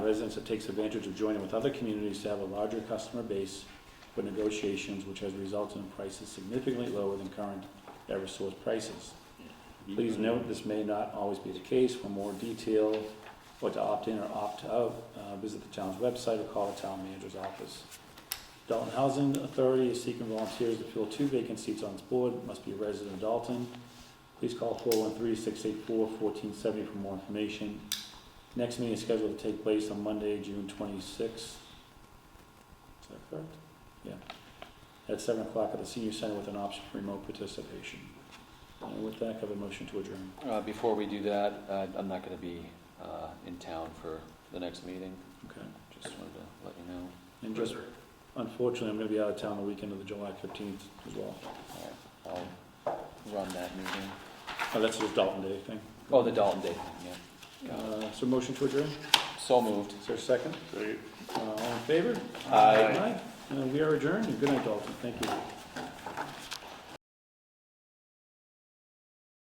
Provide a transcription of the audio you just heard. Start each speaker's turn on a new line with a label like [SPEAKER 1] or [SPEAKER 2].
[SPEAKER 1] residents that takes advantage of joining with other communities to have a larger customer base for negotiations, which has resulted in prices significantly lower than current Eversource prices. Please note, this may not always be the case. For more detail, or to opt in or opt out, uh, visit the town's website or call the town manager's office. Dalton Housing Authority is seeking volunteers to fill two vacant seats on its board, must be a resident of Dalton. Please call 413-684-1470 for more information. Next meeting is scheduled to take place on Monday, June twenty-sixth. Is that correct? Yeah. At seven o'clock at the senior center with an option for remote participation. And Uh, with that, I have a motion to adjourn.
[SPEAKER 2] Uh, Before we do that, uh, I'm not going to be uh, in town for the next meeting.
[SPEAKER 1] Okay.
[SPEAKER 2] Just wanted to let you know.
[SPEAKER 1] And just, unfortunately, I'm gonna be out of town the weekend of the July fifteenth as well.
[SPEAKER 2] All right, I'll run that meeting.
[SPEAKER 1] Oh, that's just Dalton Day thing.
[SPEAKER 2] Oh, the Dalton Day, thing,
[SPEAKER 1] Uh, so motion to adjourn?
[SPEAKER 2] yeah. So moved.
[SPEAKER 1] Is there a second? Uh, all in favor?
[SPEAKER 2] Aye.
[SPEAKER 1] Aye. Uh, we are adjourned. Good night, Dalton. Thank you.